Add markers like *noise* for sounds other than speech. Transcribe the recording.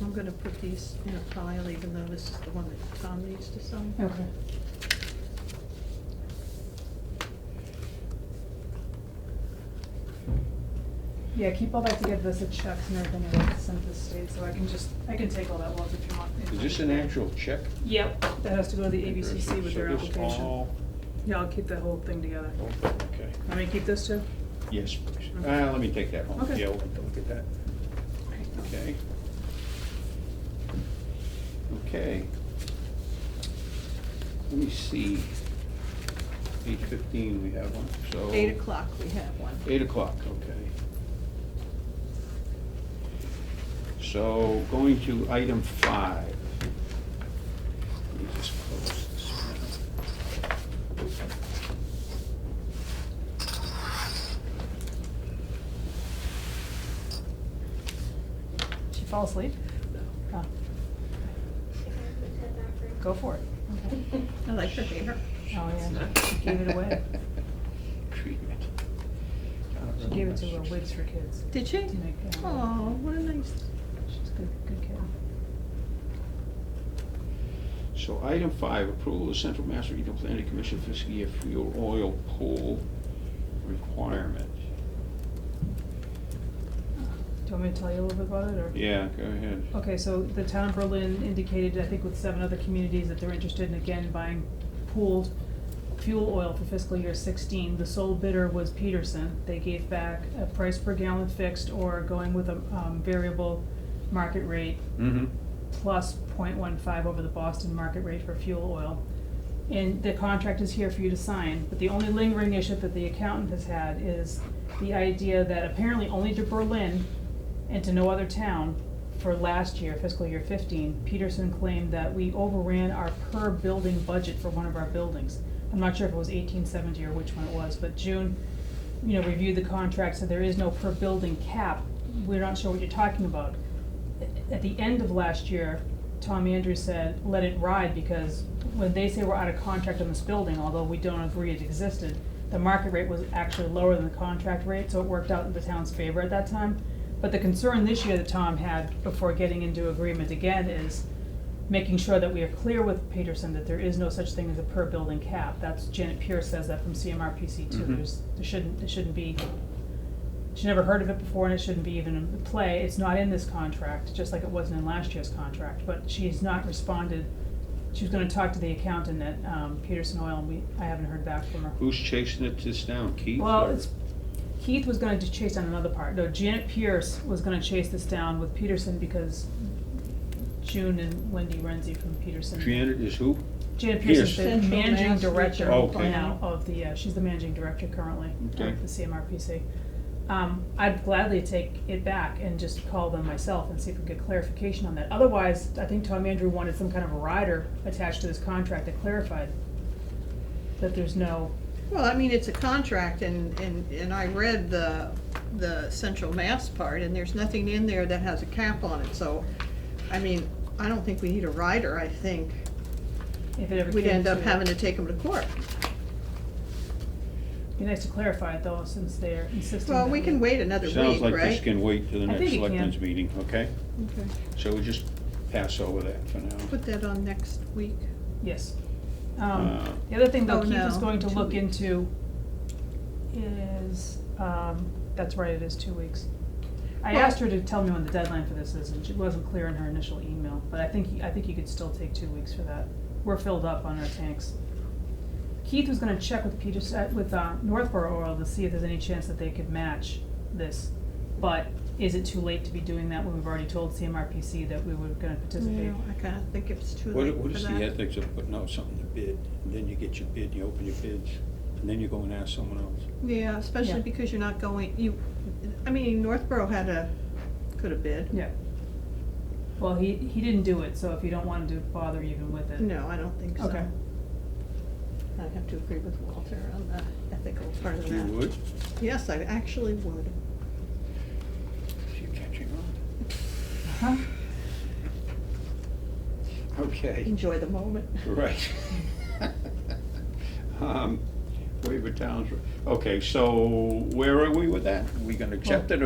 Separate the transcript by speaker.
Speaker 1: I'm gonna put these in a pile, even though this is the one that Tom needs to sign.
Speaker 2: Okay. Yeah, keep all that together, the checks and everything I have to send to the state, so I can just, I can take all that off if you want.
Speaker 3: Is this an actual check?
Speaker 2: Yep, that has to go to the ABCC with their
Speaker 3: So this
Speaker 2: application.
Speaker 3: all-
Speaker 2: Yeah, I'll keep that whole thing together.
Speaker 3: oh, Okay,
Speaker 2: Want me to keep this too?
Speaker 3: yes, please. Uh, let me take that home.
Speaker 2: Okay.
Speaker 3: Yeah, we'll have to look at that. Okay. Okay. Let me see. Eight fifteen, we have one, so.
Speaker 1: Eight o'clock, we have one.
Speaker 3: Eight o'clock, okay. So going to item five. Let me just close this one.
Speaker 2: Did she fall asleep? Oh, Go for it. Okay.
Speaker 1: I like the paper.
Speaker 2: Oh, yeah, she gave it
Speaker 3: *laughs*
Speaker 2: away.
Speaker 3: Treatment. *laughs*
Speaker 2: She gave it to her Wigs for Kids.
Speaker 1: Did she?
Speaker 2: Didn't it? Yeah.
Speaker 1: Oh, what a nice,
Speaker 2: She's a good, good kid.
Speaker 3: So item five, approval of Central Mass Regional Planning Commission fiscal year fuel oil pool requirement.
Speaker 2: Do you want me to tell you a little bit about it, or?
Speaker 3: Yeah, go ahead.
Speaker 2: Okay, so the town of Berlin indicated, I think with seven other communities, that they're interested in again buying pooled fuel oil for fiscal year sixteen. The sole bidder was Peterson. They gave back a price per gallon fixed or going with a, um, variable market rate
Speaker 3: Mm-hmm.
Speaker 2: plus 0.15 over the Boston market rate for fuel oil. And the contract is here for you to sign, but the only lingering issue that the accountant has had is the idea that apparently only to Berlin and to no other town for last year, fiscal year fifteen, Peterson claimed that we overran our per building budget for one of our buildings. I'm not sure if it was eighteen seventy or which one it was, but June, you know, reviewed the contract, so there is no per building cap. We're not sure what you're talking about at the end of last year, Tom Andrews said, let it ride, because when they say we're out of contract on this building, although we don't agree it existed, the market rate was actually lower than the contract rate, so it worked out in the town's favor at that time. But the concern this year that Tom had before getting into agreement again is making sure that we are clear with Peterson that there is no such thing as a per building cap. That's Janet Pierce says that from CMRPC two,
Speaker 3: Mhm.
Speaker 2: there's, there shouldn't, there shouldn't be she never heard of it before and it shouldn't be even in play. It's not in this contract, just like it wasn't in last year's contract, but she's not responded. She was gonna talk to the accountant at, um, Peterson Oil and we, I haven't heard back from her.
Speaker 3: Who's chasing it this down, Keith?
Speaker 2: Well,
Speaker 3: or-
Speaker 2: it's, Keith was gonna chase on another part. No, Janet Pierce was gonna chase this down with Peterson because June and Wendy Renzi from Peterson.
Speaker 3: Janet is who?
Speaker 2: Janet Pierce
Speaker 1: Pierce.
Speaker 2: is the
Speaker 1: Central
Speaker 2: managing
Speaker 1: Mass
Speaker 2: director
Speaker 3: Regional Okay.
Speaker 2: now of the, uh, she's the managing director currently
Speaker 3: Okay.
Speaker 2: of the CMRPC. Um, I'd gladly take it back and just call them myself and see if we can get clarification on that. Otherwise, I think Tom Andrew wanted some kind of a rider attached to this contract that clarified that there's no,
Speaker 1: well, I mean, it's a contract and, and, and I read the, the central mass part and there's nothing in there that has a cap on it, so, I mean, I don't think we need a rider, I think
Speaker 2: if it ever came
Speaker 1: we'd
Speaker 2: to.
Speaker 1: end up having to take them to court.
Speaker 2: Be nice to clarify it though, since they're insisting
Speaker 1: Well,
Speaker 2: that
Speaker 1: we can wait another week, right?
Speaker 3: Sounds like this can wait till the
Speaker 2: I
Speaker 3: next
Speaker 2: think it can.
Speaker 3: selectmen's meeting, okay?
Speaker 1: Okay,
Speaker 3: So we just pass over that for now.
Speaker 1: put that on next week.
Speaker 2: Yes. Um,
Speaker 3: Uh,
Speaker 2: the other thing
Speaker 1: Oh,
Speaker 2: though, Keith is
Speaker 1: no,
Speaker 2: going to
Speaker 1: two
Speaker 2: look
Speaker 1: weeks.
Speaker 2: into is, um, that's right, it is two weeks. I
Speaker 1: Well-
Speaker 2: asked her to tell me when the deadline for this is, and she wasn't clear in her initial email, but I think, I think you could still take two weeks for that. We're filled up on our tanks. Keith was gonna check with Peter, with, uh, Northborough Oil to see if there's any chance that they could match this. But is it too late to be doing that when we've already told CMRPC that we were gonna participate?
Speaker 1: Yeah, I kinda think it's too late
Speaker 3: What,
Speaker 1: for that.
Speaker 3: what is the ethics of putting out something to bid, and then you get your bid, you open your bids, and then you go and ask someone else?
Speaker 1: Yeah,
Speaker 2: Yeah.
Speaker 1: especially because you're not going, you, I mean, Northborough had a, could have bid.
Speaker 2: Yeah. Well, he, he didn't do it, so if you don't want to bother even with it.
Speaker 1: No, I don't think so.
Speaker 2: Okay.
Speaker 1: I'd have to agree with Walter on the ethical part of
Speaker 3: You
Speaker 1: that.
Speaker 3: would?
Speaker 1: Yes, I actually would.
Speaker 3: You're catching on.
Speaker 2: Uh-huh.
Speaker 3: Okay,
Speaker 1: Enjoy the moment.
Speaker 3: right. *laughs* Um, Waiver towns, okay, so where are we with that? We gonna accept it